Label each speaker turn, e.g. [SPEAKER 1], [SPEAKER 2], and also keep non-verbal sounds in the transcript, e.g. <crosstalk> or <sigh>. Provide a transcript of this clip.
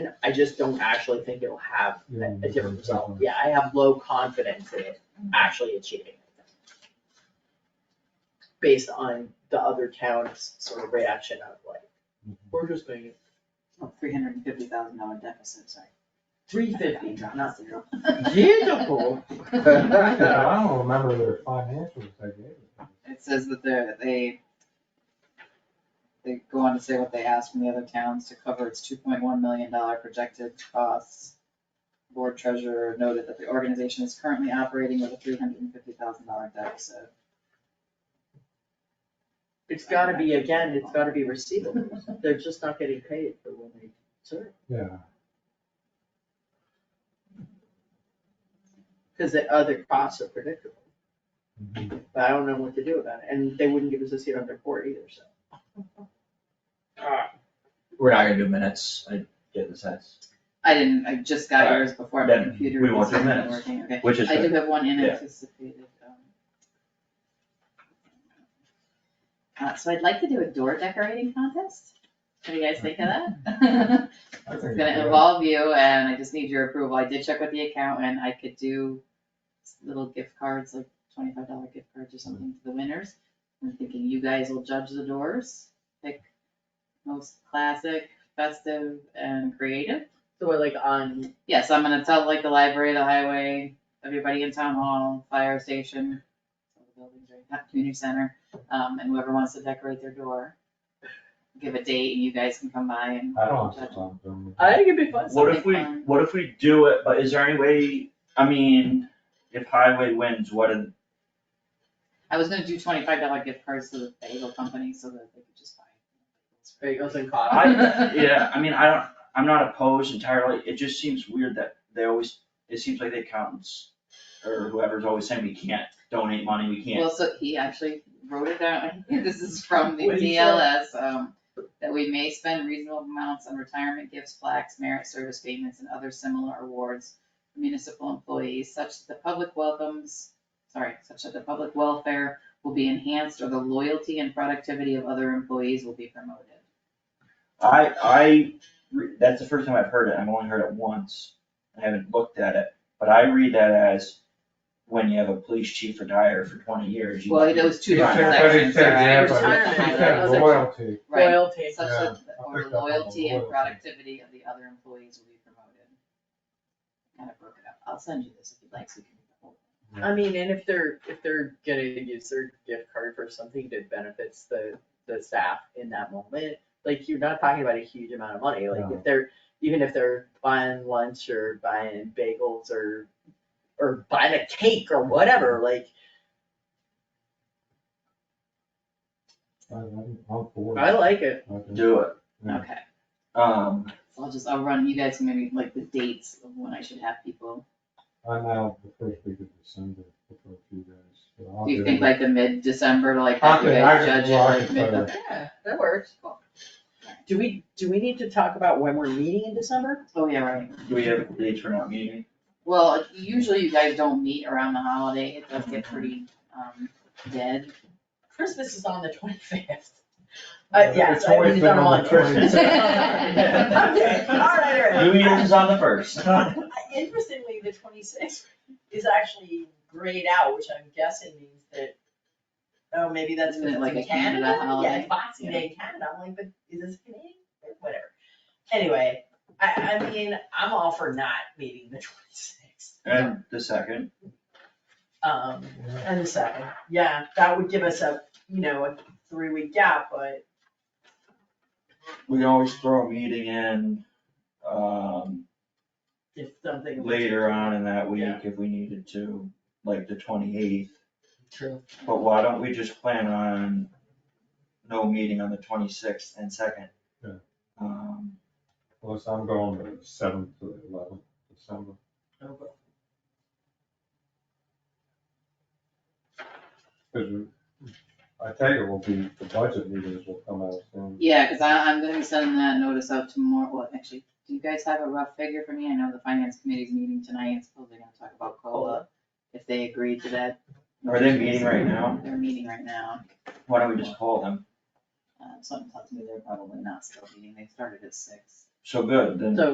[SPEAKER 1] happen, I just don't actually think it'll have
[SPEAKER 2] Yeah,
[SPEAKER 1] a- a different result.
[SPEAKER 2] definitely.
[SPEAKER 1] Yeah, I have low confidence in it actually achieving. it. Based on the other town's sort of reaction of like, we're just paying it
[SPEAKER 3] Oh, Three hundred and fifty thousand dollar deficit, sorry.
[SPEAKER 1] three fifty, not
[SPEAKER 3] zero.
[SPEAKER 1] beautiful.
[SPEAKER 2] I don't remember their financials I gave. them.
[SPEAKER 3] It says that they're, they, they go on to say what they asked from the other towns to cover its two point one million dollar projected costs. Board treasurer noted that the organization is currently operating with a three hundred and fifty thousand dollar deficit.
[SPEAKER 1] It's gotta be, again, it's gotta be receivable. They're just not getting paid for what they serve.
[SPEAKER 2] Yeah,
[SPEAKER 1] Cause the other costs are predictable,
[SPEAKER 2] Mhm.
[SPEAKER 1] but I don't know what to do about it, and they wouldn't give us a seat on their board either, so. Ah,
[SPEAKER 4] We're not gonna do minutes, I get the sense,
[SPEAKER 3] I didn't, I just got yours before my
[SPEAKER 4] Then
[SPEAKER 3] computer
[SPEAKER 4] we
[SPEAKER 3] was
[SPEAKER 4] want your
[SPEAKER 3] not
[SPEAKER 4] minutes,
[SPEAKER 3] working, okay?
[SPEAKER 4] which is
[SPEAKER 3] I do
[SPEAKER 4] good.
[SPEAKER 3] have one
[SPEAKER 4] Yeah.
[SPEAKER 3] unanticipated, um. Uh, so I'd like to do a door decorating contest. What do you guys think of that? <laughs>
[SPEAKER 2] I think it's
[SPEAKER 3] It's gonna
[SPEAKER 2] good.
[SPEAKER 3] involve you and I just need your approval. I did check with the accountant. I could do little gift cards, like twenty-five dollar gift cards or something to the winners. I'm thinking you guys will judge the doors, pick most classic, festive and creative.
[SPEAKER 1] So we're like on,
[SPEAKER 3] Yes, I'm gonna tell like the library, the highway, everybody in town hall, fire station, all the buildings right, not community center, um, and whoever wants to decorate their door. Give a date and you guys can come by and.
[SPEAKER 2] I don't have to talk to them.
[SPEAKER 3] Uh,
[SPEAKER 1] I think it'd be fun.
[SPEAKER 4] What if
[SPEAKER 3] something
[SPEAKER 4] we,
[SPEAKER 3] fun.
[SPEAKER 4] what if we do it, but is there any way, I mean, if highway wins, what did,
[SPEAKER 3] I was gonna do twenty-five dollar gift cards to the bagel company so that they could just buy.
[SPEAKER 1] Bagels and
[SPEAKER 4] I,
[SPEAKER 1] coffee. <laughs>
[SPEAKER 3] <laughs>
[SPEAKER 4] yeah, I mean, I don't, I'm not opposed entirely, it just seems weird that they always, it seems like the accountants or whoever's always saying we can't donate money, we can't.
[SPEAKER 3] Well, so he actually wrote it down, <laughs> this is from the
[SPEAKER 1] What did he say?
[SPEAKER 3] DLS, um, that we may spend reasonable amounts on retirement gifts, plaques, merit service payments, and other similar awards for municipal employees, such that the public welcomes, sorry, such that the public welfare will be enhanced or the loyalty and productivity of other employees will be promoted.
[SPEAKER 4] I, I, re- that's the first time I've heard it, I've only heard it once, I haven't looked at it, but I read that as when you have a police chief retire for twenty years, you.
[SPEAKER 3] Well, those two
[SPEAKER 2] He
[SPEAKER 3] different
[SPEAKER 2] said- but he
[SPEAKER 3] sections,
[SPEAKER 2] said that,
[SPEAKER 3] right?
[SPEAKER 2] but
[SPEAKER 1] Retirement,
[SPEAKER 2] He said
[SPEAKER 1] those are-
[SPEAKER 2] loyalty,
[SPEAKER 3] Right,
[SPEAKER 1] Royalty.
[SPEAKER 3] such
[SPEAKER 2] Yeah,
[SPEAKER 3] that,
[SPEAKER 2] I
[SPEAKER 3] or
[SPEAKER 2] picked up on the
[SPEAKER 3] loyalty and
[SPEAKER 2] loyalty.
[SPEAKER 3] productivity of the other employees will be promoted. Kind of broke it up, I'll send you this if you'd like, so you can. read the whole thing.
[SPEAKER 1] I mean, and if they're, if they're gonna use their gift card for something that benefits the, the staff in that moment, like, you're not talking about a huge amount of money, like,
[SPEAKER 2] No.
[SPEAKER 1] if they're, even if they're buying lunch or buying bagels or, or buying a cake or whatever, like,
[SPEAKER 2] I- I'm I'm for
[SPEAKER 1] I
[SPEAKER 2] it.
[SPEAKER 1] like it.
[SPEAKER 2] I think-
[SPEAKER 4] Do it,
[SPEAKER 2] Yeah.
[SPEAKER 3] Okay,
[SPEAKER 4] um,
[SPEAKER 3] so I'll just, I'll run you guys maybe like the dates of when I should have people.
[SPEAKER 2] I'm out the first week of December for a few days. so I'll
[SPEAKER 3] Do you
[SPEAKER 2] it.
[SPEAKER 3] think like the mid-December, to, like
[SPEAKER 2] I
[SPEAKER 3] have you
[SPEAKER 2] could-
[SPEAKER 3] guys
[SPEAKER 2] I
[SPEAKER 3] judge it
[SPEAKER 2] could- well, I
[SPEAKER 3] like
[SPEAKER 2] could
[SPEAKER 3] mid?
[SPEAKER 2] probably-
[SPEAKER 3] okay.
[SPEAKER 1] Yeah, that works.
[SPEAKER 3] Cool.
[SPEAKER 1] Do we, do we need to talk about when we're meeting in December?
[SPEAKER 3] Oh, yeah, right.
[SPEAKER 4] do we have dates for not meeting?
[SPEAKER 3] Well, usually you guys don't meet around the holiday, it does get pretty, um, dead.
[SPEAKER 1] Christmas is on the twenty-fifth.
[SPEAKER 2] Uh,
[SPEAKER 1] yeah,
[SPEAKER 2] it's
[SPEAKER 1] I mean,
[SPEAKER 2] always
[SPEAKER 1] it's on
[SPEAKER 2] been
[SPEAKER 1] a
[SPEAKER 2] on the
[SPEAKER 1] Monday. <laughs>
[SPEAKER 2] 25th.
[SPEAKER 1] Okay, all right, all right.
[SPEAKER 4] New Year's is on the first.
[SPEAKER 1] Interestingly, the twenty-sixth is actually grayed out, which I'm guessing means that, oh, maybe that's
[SPEAKER 3] Isn't it
[SPEAKER 1] because it's in
[SPEAKER 3] like a Canada
[SPEAKER 1] Canada, yeah,
[SPEAKER 3] holiday?
[SPEAKER 1] it's Boxing Day in Canada, I'm like, but is this Canadian, Or whatever. Anyway, I, I mean, I'm all for not meeting the <laughs> twenty-sixth,
[SPEAKER 4] And the second,
[SPEAKER 1] um, and the second, yeah, that would give us a, you know, a three-week gap, but
[SPEAKER 4] we can always throw a meeting in, um,
[SPEAKER 1] if something.
[SPEAKER 4] later on in that week
[SPEAKER 1] Yeah.
[SPEAKER 4] if we needed to, like the twenty-eighth.
[SPEAKER 1] True.
[SPEAKER 4] But why don't we just plan on no meeting on the twenty-sixth and second?
[SPEAKER 2] Yeah.
[SPEAKER 4] Um,
[SPEAKER 2] Plus, I'm going the seventh to the eleventh December. Cause I tell you, will be, the budget meetings will come out soon.
[SPEAKER 3] Yeah, cause I, I'm gonna be sending that notice out tomorrow, well, actually, do you guys have a rough figure for me? I know the finance committee's meeting tonight, and suppose they're gonna talk about COLA, if they agreed to that.
[SPEAKER 4] Are they meeting right now?
[SPEAKER 3] They're meeting right now,
[SPEAKER 4] why don't we just call them?
[SPEAKER 3] uh, something tells me they're probably not still meeting, they started at six.
[SPEAKER 4] So good, then.
[SPEAKER 1] So